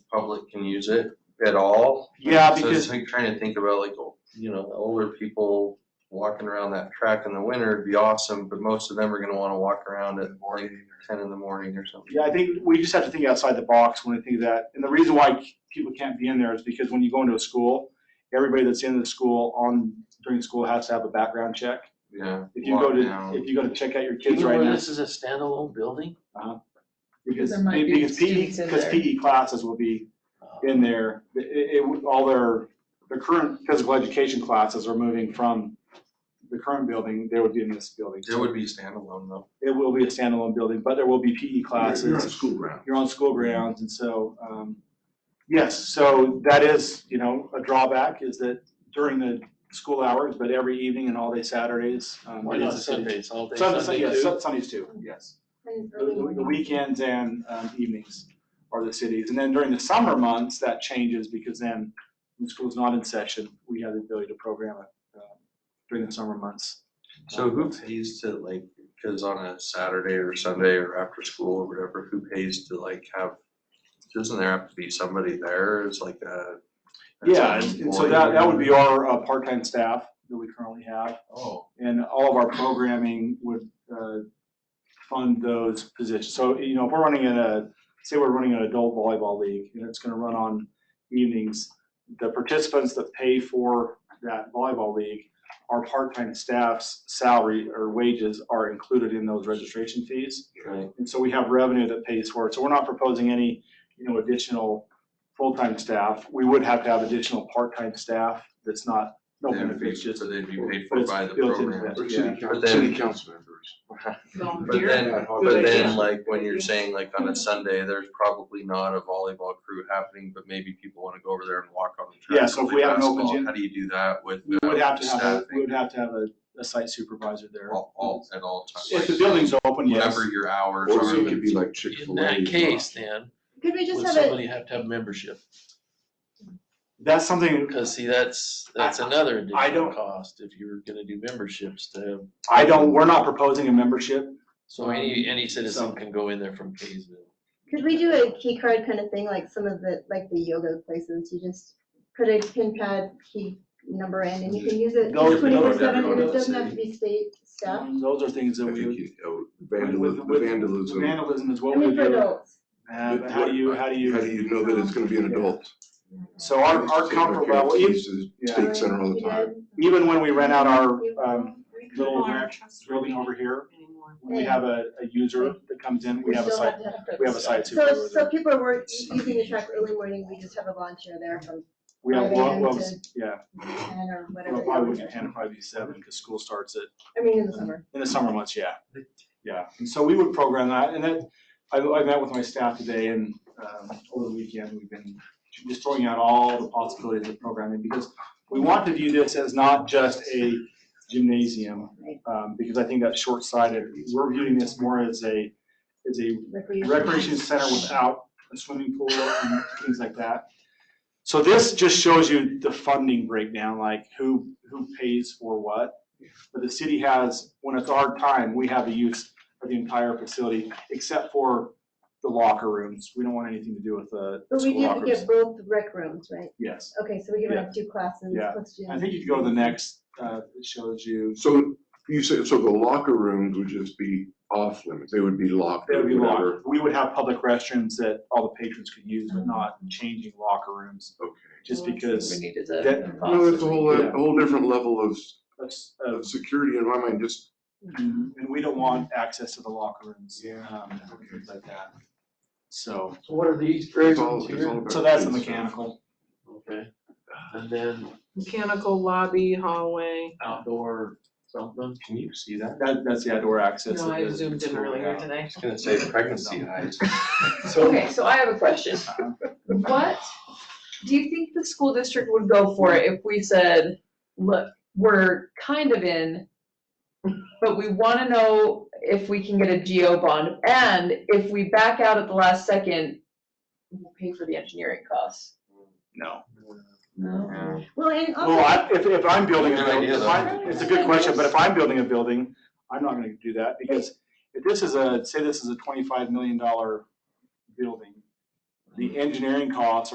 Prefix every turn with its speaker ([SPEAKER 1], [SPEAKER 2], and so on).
[SPEAKER 1] public can use it at all.
[SPEAKER 2] Yeah,
[SPEAKER 1] So
[SPEAKER 2] because
[SPEAKER 1] it's like trying to think about like, you know, older people walking around that track in the winter would be awesome, but most of them are gonna wanna walk around at like ten in the morning or something.
[SPEAKER 2] Yeah, I think we just have to think outside the box when we think of that. And the reason why people can't be in there is because when you go into a school, everybody that's in the school on, during school has to have a background check.
[SPEAKER 1] Yeah.
[SPEAKER 2] If you go to,
[SPEAKER 1] lockdown.
[SPEAKER 2] if you go to check out your kids right now,
[SPEAKER 3] is a standalone building?
[SPEAKER 2] because,
[SPEAKER 4] There might be
[SPEAKER 2] because PE,
[SPEAKER 4] students in
[SPEAKER 2] because
[SPEAKER 4] there.
[SPEAKER 2] PE classes will be
[SPEAKER 3] Uh,
[SPEAKER 2] in there. It, it, all their, their current physical education classes are moving from the current building, they would be in this building.
[SPEAKER 1] It would be standalone though.
[SPEAKER 2] It will be a standalone building, but there will be PE classes.
[SPEAKER 5] You're on school ground.
[SPEAKER 2] you're on school grounds, and so, um, yes, so that is, you know, a drawback is that during the school hours, but every evening and all day Saturdays. um,
[SPEAKER 3] Why
[SPEAKER 2] it
[SPEAKER 3] not
[SPEAKER 2] is a Sunday-
[SPEAKER 3] Sundays, all day
[SPEAKER 2] Sun-
[SPEAKER 3] Sunday
[SPEAKER 2] yes,
[SPEAKER 3] too?
[SPEAKER 2] Sun- Sundays too, yes. The the weekends and, um, evenings are the cities, and then during the summer months, that changes because then when school's not in session, we have the ability to program it, uh, during the summer months.
[SPEAKER 1] So who pays to like, cause on a Saturday or Sunday or after school or whatever, who pays to like have, doesn't there have to be somebody there as like a? as
[SPEAKER 2] Yeah,
[SPEAKER 1] an
[SPEAKER 2] and and so
[SPEAKER 1] employee
[SPEAKER 2] that, that would be
[SPEAKER 1] or-
[SPEAKER 2] our, uh, part-time staff that we currently have.
[SPEAKER 1] Oh,
[SPEAKER 2] and all of our programming would uh, fund those positions. So, you know, if we're running in a, say we're running an adult volleyball league, and it's gonna run on evenings, the participants that pay for that volleyball league, our part-time staff's salary or wages are included in those registration fees.
[SPEAKER 1] right.
[SPEAKER 2] And so we have revenue that pays for it. So we're not proposing any, you know, additional full-time staff. We would have to have additional part-time staff that's not, no
[SPEAKER 1] They'd be-
[SPEAKER 2] benefits, just
[SPEAKER 1] So they'd be paid
[SPEAKER 2] but
[SPEAKER 1] for
[SPEAKER 2] it's
[SPEAKER 1] by the
[SPEAKER 2] built into
[SPEAKER 1] program.
[SPEAKER 2] that.
[SPEAKER 5] Or
[SPEAKER 2] Yeah.
[SPEAKER 5] city council,
[SPEAKER 1] But then-
[SPEAKER 5] city council members.
[SPEAKER 1] But then, but
[SPEAKER 4] Good
[SPEAKER 1] then
[SPEAKER 4] idea.
[SPEAKER 1] like when you're
[SPEAKER 4] Good idea.
[SPEAKER 1] saying like on a Sunday, there's probably not a volleyball crew happening, but maybe people wanna go over there and walk on the track.
[SPEAKER 2] Yeah, so if
[SPEAKER 1] play
[SPEAKER 2] we have an open
[SPEAKER 1] basketball.
[SPEAKER 2] gym-
[SPEAKER 1] How do you do that with?
[SPEAKER 2] We would
[SPEAKER 1] uh,
[SPEAKER 2] have to have, a- we
[SPEAKER 1] staffing
[SPEAKER 2] would have to have a, a site supervisor there.
[SPEAKER 1] All, all, at all times.
[SPEAKER 2] If the building's open, yes.
[SPEAKER 1] Whatever your hours are.
[SPEAKER 5] Or it could be like
[SPEAKER 3] In
[SPEAKER 5] Chick-fil-A.
[SPEAKER 3] that case, then,
[SPEAKER 4] Could we just
[SPEAKER 3] would
[SPEAKER 4] have it,
[SPEAKER 3] somebody have to have membership?
[SPEAKER 2] That's something
[SPEAKER 3] Because see, that's, that's another
[SPEAKER 2] I don't-
[SPEAKER 3] additional cost if you were gonna do memberships to have.
[SPEAKER 2] I don't, we're not proposing a membership.
[SPEAKER 3] So any, any
[SPEAKER 2] So-
[SPEAKER 3] citizen can go in there from Kaysville.
[SPEAKER 4] could we do a key card kind of thing, like some of the, like the yoga places, you just put a pin pad key number in and you can use it
[SPEAKER 2] Those-
[SPEAKER 4] twenty-four
[SPEAKER 1] those
[SPEAKER 4] seven,
[SPEAKER 1] everyone
[SPEAKER 4] and
[SPEAKER 1] in
[SPEAKER 4] it
[SPEAKER 1] the
[SPEAKER 4] doesn't have to
[SPEAKER 1] city.
[SPEAKER 4] be state staff.
[SPEAKER 2] Um, Those are things that
[SPEAKER 5] I
[SPEAKER 2] we
[SPEAKER 5] think
[SPEAKER 2] would.
[SPEAKER 5] you, oh,
[SPEAKER 2] with-
[SPEAKER 5] vandalism,
[SPEAKER 2] with-
[SPEAKER 5] vandalism. How
[SPEAKER 2] Vandalism is
[SPEAKER 4] I
[SPEAKER 2] what we
[SPEAKER 4] mean, for
[SPEAKER 2] do.
[SPEAKER 4] adults.
[SPEAKER 2] Uh, but how do you, how do
[SPEAKER 5] do
[SPEAKER 2] you,
[SPEAKER 5] you know that it's gonna be an adult?
[SPEAKER 2] so our, our comfort level,
[SPEAKER 5] We
[SPEAKER 2] even,
[SPEAKER 5] used to
[SPEAKER 2] yeah.
[SPEAKER 5] Take center all the time.
[SPEAKER 2] even when we rent out our, um, little ranch building over here, when we have a, a user that comes in, we have a site, we have a site
[SPEAKER 4] So,
[SPEAKER 2] supervisor.
[SPEAKER 4] so people are work- using the track early morning, we just have a volunteer there from
[SPEAKER 2] We have, well,
[SPEAKER 4] Five
[SPEAKER 2] well,
[SPEAKER 4] a.m.
[SPEAKER 2] yeah,
[SPEAKER 4] ten or whatever.
[SPEAKER 2] well,
[SPEAKER 4] the
[SPEAKER 2] probably
[SPEAKER 4] hours
[SPEAKER 2] wouldn't
[SPEAKER 4] are.
[SPEAKER 2] be ten, probably be seven, because school starts at
[SPEAKER 4] I mean, in the summer.
[SPEAKER 2] In the summer months, yeah, yeah, and so we would program that, and that, I, I met with my staff today and, um, over the weekend, we've been just throwing out all the possibilities of programming, because we want to view this as not just a gymnasium, um, because I think that's short-sighted, we're viewing this more as a, as a recreation center without a swimming pool and things like that. So this just shows you the funding breakdown, like who, who pays for what. But the city has, when it's our time, we have the use of the entire facility, except for the locker rooms. We don't want anything to do with the
[SPEAKER 4] But we
[SPEAKER 2] school
[SPEAKER 4] do have to
[SPEAKER 2] locker rooms.
[SPEAKER 4] get both rec rooms, right?
[SPEAKER 2] Yes,
[SPEAKER 4] Okay, so we can have two classes,
[SPEAKER 2] Yeah.
[SPEAKER 4] let's do.
[SPEAKER 2] I think if you go to the next, uh, it shows you,
[SPEAKER 5] So you said, so the locker rooms would just be off limits, they would be locked
[SPEAKER 2] there
[SPEAKER 5] or
[SPEAKER 2] would be
[SPEAKER 5] whatever.
[SPEAKER 2] locker, we would have public restrooms that all the patrons could use, but not changing locker rooms,
[SPEAKER 5] Okay.
[SPEAKER 2] just because
[SPEAKER 6] needed
[SPEAKER 2] that,
[SPEAKER 5] No, that's a whole,
[SPEAKER 2] Yeah.
[SPEAKER 5] a whole different level of,
[SPEAKER 2] that's, uh,
[SPEAKER 5] of security in my mind, just
[SPEAKER 2] And we don't want access to the locker rooms.
[SPEAKER 5] Yeah.
[SPEAKER 2] um, and Things like that. So,
[SPEAKER 3] So what are these
[SPEAKER 5] it's all, it's all about.
[SPEAKER 2] so that's the
[SPEAKER 5] kids.
[SPEAKER 2] mechanical.
[SPEAKER 3] Okay, and then
[SPEAKER 6] Mechanical lobby, hallway.
[SPEAKER 3] outdoor something,
[SPEAKER 1] Can you see that?
[SPEAKER 2] That, that's the outdoor access.
[SPEAKER 6] No,
[SPEAKER 2] that
[SPEAKER 6] I
[SPEAKER 2] the
[SPEAKER 6] zoomed in
[SPEAKER 2] school
[SPEAKER 6] earlier
[SPEAKER 2] had.
[SPEAKER 1] I
[SPEAKER 6] today.
[SPEAKER 1] was gonna say pregnancy highs.
[SPEAKER 6] Okay, so I have a question.
[SPEAKER 2] Uh-huh.
[SPEAKER 6] What do you think the school district would go for if we said, look, we're kind of in, but we wanna know if we can get a GO bond, and if we back out at the last second, we'll pay for the engineering costs.
[SPEAKER 2] No.
[SPEAKER 6] No.
[SPEAKER 1] Yeah.
[SPEAKER 4] Well, and also.
[SPEAKER 2] Well, I, if, if I'm building a
[SPEAKER 1] Good
[SPEAKER 2] building,
[SPEAKER 1] idea,
[SPEAKER 2] if
[SPEAKER 1] though.
[SPEAKER 2] I- it's a good question, but if I'm building a building, I'm not gonna do that because if this is a, say this is a twenty-five million dollar building, the engineering costs